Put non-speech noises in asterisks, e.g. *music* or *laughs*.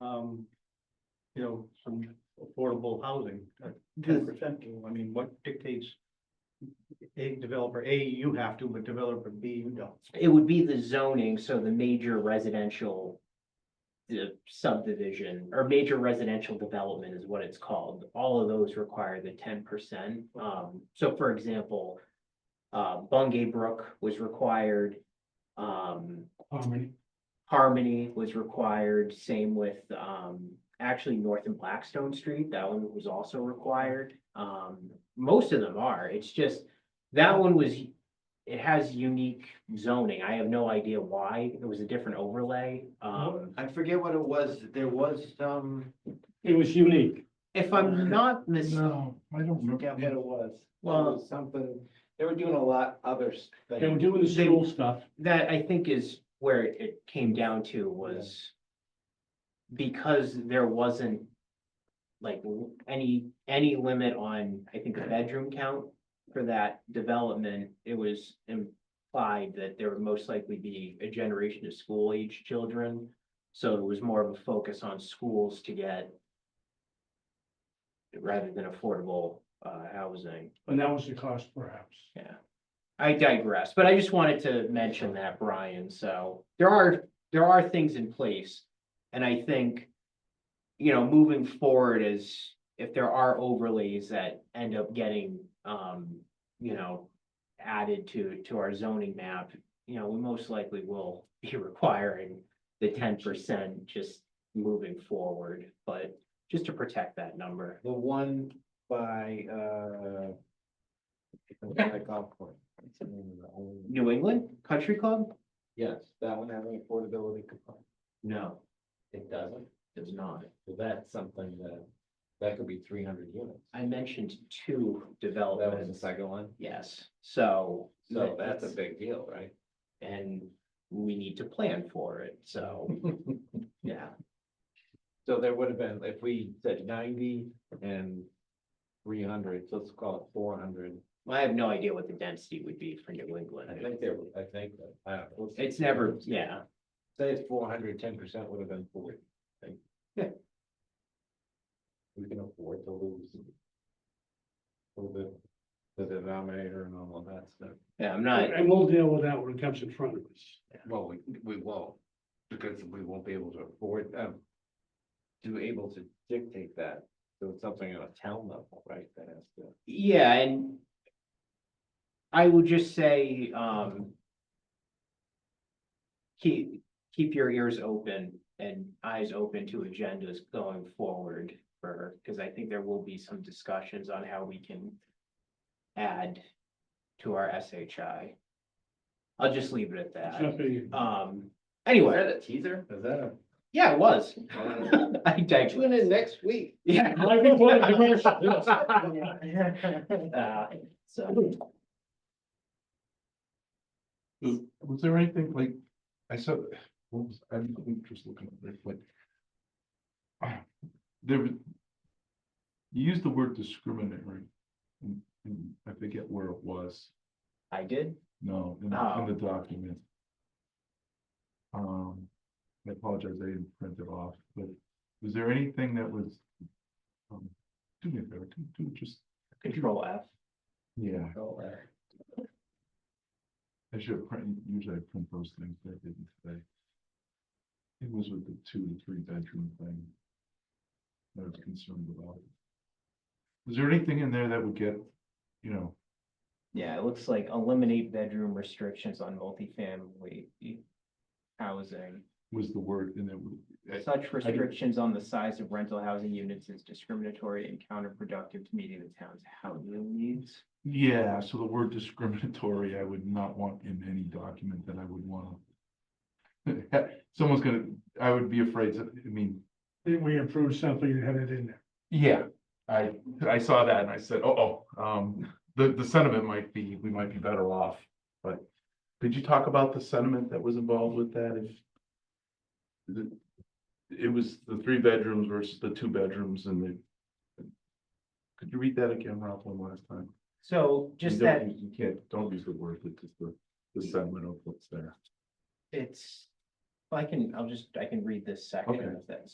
um, you know, some affordable housing, uh, ten percent, I mean, what dictates a developer, A, you have to, but developer B, you don't. It would be the zoning, so the major residential. The subdivision or major residential development is what it's called. All of those require the ten percent. Um, so for example. Uh, Bungay Brook was required. Um, Harmony. Harmony was required, same with, um, actually North and Blackstone Street, that one was also required. Um, most of them are, it's just, that one was, it has unique zoning, I have no idea why, it was a different overlay. Uh, Um, I forget what it was, there was some, It was unique. if I'm not mis- No, I don't Mm-hmm. forget what it was. There Well- was Something, they were doing a lot other s- They were things. doing the They- school stuff. that I think is where it came down to was because there wasn't like l- any, any limit on, I think, the bedroom count for that development, it was implied that there would most likely be a generation of school age children. So it was more of a focus on schools to get rather than affordable uh housing. And that was the cost perhaps. I digress, but I just wanted to mention that, Brian, so there are, there are things in place. And I think, you know, moving forward is if there are overlays that end up getting, um, you know, added to, to our zoning map, you know, we most likely will *laughs* be requiring the ten percent just moving forward, but just to protect that number. The one by, uh. by golf course. What's the name of that one? New England Country Club? Yes, that one having affordability component. No, It doesn't, it's not. so that's something that, that could be three hundred units. Oh, I mentioned two That was the developments. second one, Yes, so. so that's a big deal, right? And we need to plan for it, *laughs* so, yeah, So there would have been, if we said ninety and three hundred, so let's call it four hundred. I have no idea what the density would be for New England. I think there, I think, that- I don't know. It's never, yeah, Say it's four hundred, ten percent would have been forty, I think. Yeah. We can afford to lose. A little bit, the denominator and all of that stuff. yeah, I'm not, And we'll deal with that when it comes in front of us. Well, we, we won't, because we won't be able to afford, um. To be able to dictate that, so it's something on a town level, right, that has to. *laughs* yeah, and. I would just say, um. Keep, keep your ears open and eyes open to agendas going forward for, because I think there will be some discussions on how we can. Add to our SHI. I'll just leave it at It's that. not Uh, being- Um, anyway, a teaser? Is that a? yeah, it was. I digress. Tune in next week. *laughs* Yeah. Like we wanted to rush this. *laughs* Uh, So, Was there anything like, I saw, what was, I'm just looking at this, like. *sighs* ah, There. was- You used the word discriminatory. And, and I forget where it was, I did, no, in, the- in the document. Um, I apologize, I didn't print it off, but was there anything that was? um, Do me a favor, do, do just, control F. yeah, I should have print, usually I print those things, but I didn't today. It was with the two to three bedroom thing. That I was concerned about. Is there anything in there that would get, you know, Yeah, it looks like eliminate bedroom restrictions on multifamily housing. was the word in there? Such restrictions on the size of rental housing units is discriminatory and counterproductive to meeting the town's housing needs. Yeah, so the word discriminatory, I would not want in any document that I would wanna. *laughs* Someone's gonna, I would be afraid to, I mean, Then we approved something and had it in there. yeah, I, I saw that and I said, oh, oh, um, the, the sentiment might be, we might be better off, but. Did you talk about the sentiment that was involved with that if? the- It was the three bedrooms versus the two bedrooms and the. Could you read that again, Ralph, one last time? So You just don't- that You you can't, don't use the word, it's just the, the sentiment of what's there. it's, I can, I'll just, I can read this second Okay. of this.